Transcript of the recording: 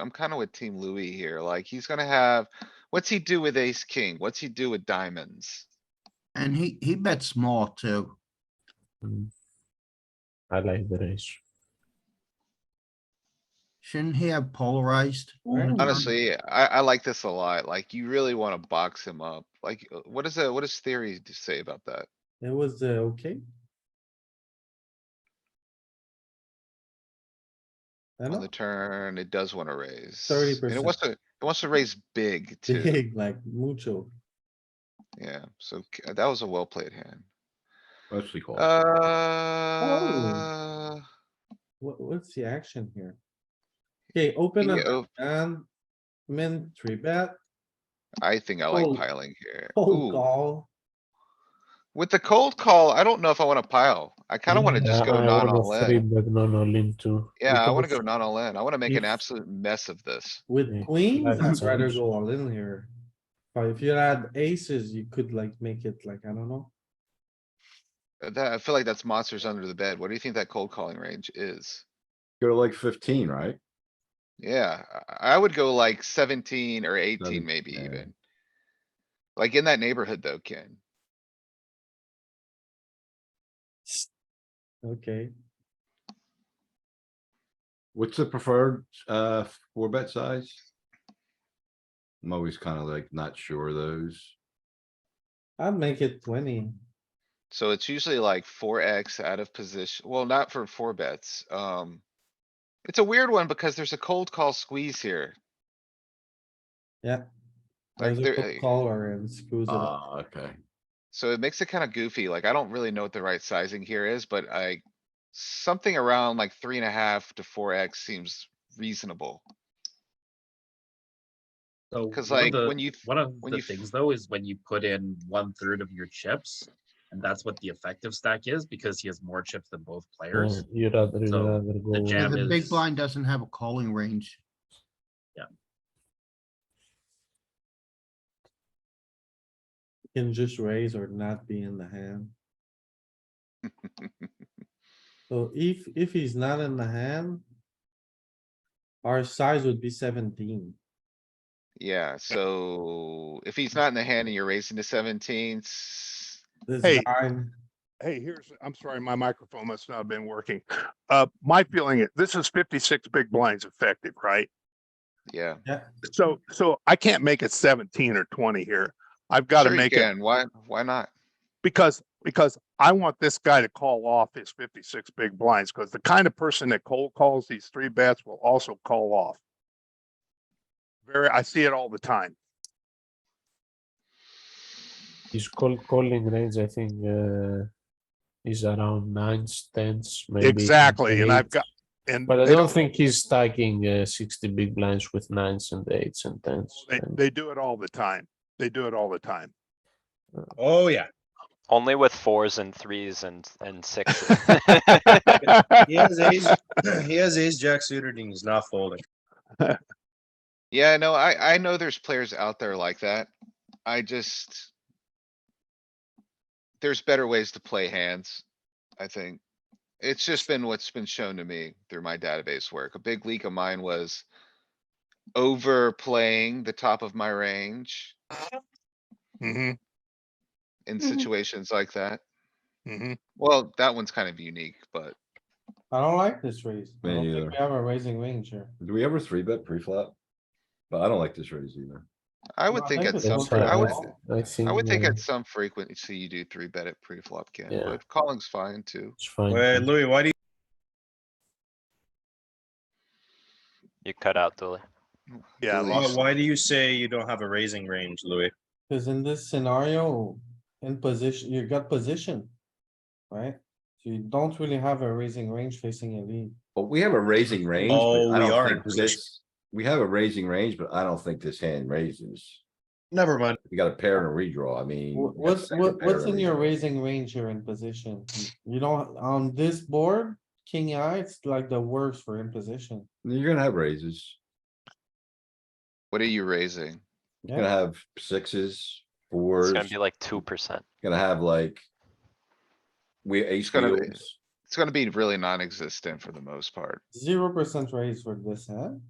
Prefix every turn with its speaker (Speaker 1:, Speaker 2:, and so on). Speaker 1: I'm kinda with team Louis here, like, he's gonna have, what's he do with ace king? What's he do with diamonds?
Speaker 2: And he, he bets small too.
Speaker 3: Mm. I like the range.
Speaker 2: Shouldn't he have polarized?
Speaker 4: Ooh.
Speaker 1: Honestly, I, I like this a lot, like, you really wanna box him up, like, uh, what is that, what does theory d- say about that?
Speaker 4: It was uh, okay. I
Speaker 1: On
Speaker 4: know,
Speaker 1: the turn, it does wanna raise.
Speaker 4: 30%.
Speaker 1: And it wants to, it wants to raise big too,
Speaker 4: big, like mucho.
Speaker 1: yeah, so c- that was a well played hand.
Speaker 5: Mostly call.
Speaker 4: Oh.
Speaker 1: Uh.
Speaker 4: What, what's the action here? Okay, open
Speaker 1: yeah,
Speaker 4: up
Speaker 1: oh,
Speaker 4: and min three bet,
Speaker 1: I think I
Speaker 4: Oh.
Speaker 1: like piling here.
Speaker 4: full
Speaker 1: Ooh,
Speaker 4: call.
Speaker 1: with the cold call, I don't know if I wanna pile. I kinda wanna just
Speaker 3: Yeah,
Speaker 1: go
Speaker 3: I
Speaker 1: not
Speaker 3: wanna
Speaker 1: all
Speaker 3: Three
Speaker 1: in.
Speaker 3: bet non all in too.
Speaker 1: Yeah, I
Speaker 3: because
Speaker 1: wanna go not all in. I wanna make an
Speaker 3: if-
Speaker 1: absolute mess of this.
Speaker 4: With
Speaker 3: Yeah,
Speaker 4: queens,
Speaker 3: like
Speaker 4: I'd
Speaker 3: so
Speaker 4: rather
Speaker 3: much.
Speaker 4: go all in here. But if you had aces, you could like make it like, I don't know.
Speaker 1: Uh, That, I feel like that's monsters under the bed. What do you think that cold calling range is?
Speaker 5: Go to like fifteen, right?
Speaker 1: Yeah, I, I would go like seventeen or eighteen
Speaker 5: Seven-
Speaker 1: maybe
Speaker 5: yeah.
Speaker 1: even. Like in that neighborhood though, Ken.
Speaker 4: Okay,
Speaker 5: What's the preferred, uh, four bet size? I'm always kinda like not sure those.
Speaker 4: I'd make it twenty.
Speaker 1: So it's usually like four X out of position. Well, not for four bets. Um. It's a weird one because there's a cold call squeeze here. Like
Speaker 4: There's a
Speaker 1: there- uh,
Speaker 4: good Caller and screws it up.
Speaker 5: Ah, okay.
Speaker 1: So it makes it kinda goofy. Like I don't really know what the right sizing here is, but I. Something around like three and a half to four X seems reasonable.
Speaker 6: So
Speaker 1: 'Cause,
Speaker 6: one of
Speaker 1: like,
Speaker 6: the-
Speaker 1: when you f-
Speaker 6: One of
Speaker 1: when
Speaker 6: the
Speaker 1: you f-
Speaker 6: things though is when you put in one third of your chips, and that's what the effective stack is because he has more chips than both players.
Speaker 3: Yeah, you uh, rather, you
Speaker 6: So,
Speaker 3: rather go.
Speaker 2: Yeah,
Speaker 6: jam
Speaker 2: The big
Speaker 6: is-
Speaker 2: blind doesn't have a calling range.
Speaker 4: You Can just raise or not be in the hand. So if, if he's not in the hand. Our size would be seventeen.
Speaker 1: Yeah, so if he's not in the hand and you're raising to seventeen, s-
Speaker 4: This
Speaker 7: Hey.
Speaker 4: nine,
Speaker 7: Hey, here's, I'm sorry, my microphone must not have been working. Uh, my feeling, is this is fifty-six big blinds effective, right?
Speaker 1: yeah.
Speaker 7: So, so I can't make it seventeen or twenty here. I've got to
Speaker 1: Sure you
Speaker 7: make it
Speaker 1: can. Why, why not?
Speaker 7: because, because I want this guy to call off his fifty-six big blinds, because the kind of person that cold calls these three bets will also call off. Very, I see it all the time.
Speaker 3: His call calling range, I think, uh, is around nines, tens, maybe. even
Speaker 7: Exactly, and I've
Speaker 3: eights.
Speaker 7: got, and.
Speaker 3: But I
Speaker 7: they
Speaker 3: don't think he's stacking uh, sixty big blinds with nines and eights and tens.
Speaker 7: They,
Speaker 3: and-
Speaker 7: they do it all the time. They do it all the time.
Speaker 6: Oh, yeah.
Speaker 8: Only with fours and threes and, and sixes.
Speaker 9: He has ace, he has ace jack suited and he's not folding.
Speaker 1: Yeah, no, I, I know there's players out there like that. I just. There's better ways to play hands, I think. It's just been what's been shown to me through my database work. A big leak of mine was. Overplaying the top of my range
Speaker 7: Mm-hmm,
Speaker 1: in situations like that.
Speaker 7: mm-hmm.
Speaker 1: Well, that one's kind of unique, but
Speaker 4: I don't like this raise. I
Speaker 5: Me
Speaker 4: don't
Speaker 5: neither.
Speaker 4: think we have a raising range here.
Speaker 5: Do we ever three bet pre-flop? But I don't like this raise either.
Speaker 1: I
Speaker 4: No,
Speaker 1: would think at
Speaker 4: it's
Speaker 1: some,
Speaker 4: okay.
Speaker 1: fre- I would,
Speaker 4: Well,
Speaker 3: I think.
Speaker 1: I would think
Speaker 3: uh,
Speaker 1: at some frequency you do three bet at pre-flop, Ken,
Speaker 3: Yeah.
Speaker 1: but calling's fine too.
Speaker 3: It's fine.
Speaker 9: Wait, Louis, why do you?
Speaker 8: You cut out, Dooley.
Speaker 7: Yeah, I
Speaker 1: Really?
Speaker 9: Why
Speaker 7: lost-
Speaker 9: why do you say you don't have a raising range, Louis?
Speaker 4: Cause in this scenario, in position, you got position. Right? So you don't really have a raising range facing a lead.
Speaker 5: But we have a raising range. but
Speaker 9: Oh,
Speaker 5: I
Speaker 9: we
Speaker 5: don't
Speaker 9: are
Speaker 5: think
Speaker 9: in
Speaker 5: this-
Speaker 9: range.
Speaker 5: We have a raising range, but I don't think this hand raises.
Speaker 9: Never mind.
Speaker 5: We got a pair and a redraw, I mean.
Speaker 4: Wha-
Speaker 5: we got a
Speaker 4: What's,
Speaker 5: second
Speaker 4: what,
Speaker 5: pair
Speaker 4: what's
Speaker 5: and a
Speaker 4: in your
Speaker 5: redraw.
Speaker 4: raising range here in position? You don't, on this board, king eye, it's like the worst for imposition.
Speaker 5: You're gonna have raises.
Speaker 1: What are you raising?
Speaker 5: You're gonna
Speaker 4: Yeah,
Speaker 5: have sixes,
Speaker 8: It's
Speaker 5: fours,
Speaker 8: gonna be like two percent.
Speaker 5: gonna have like. We ace
Speaker 1: gonna be-
Speaker 5: wheels.
Speaker 1: It's gonna be really non-existent for the most part.
Speaker 4: zero percent raise for this hand.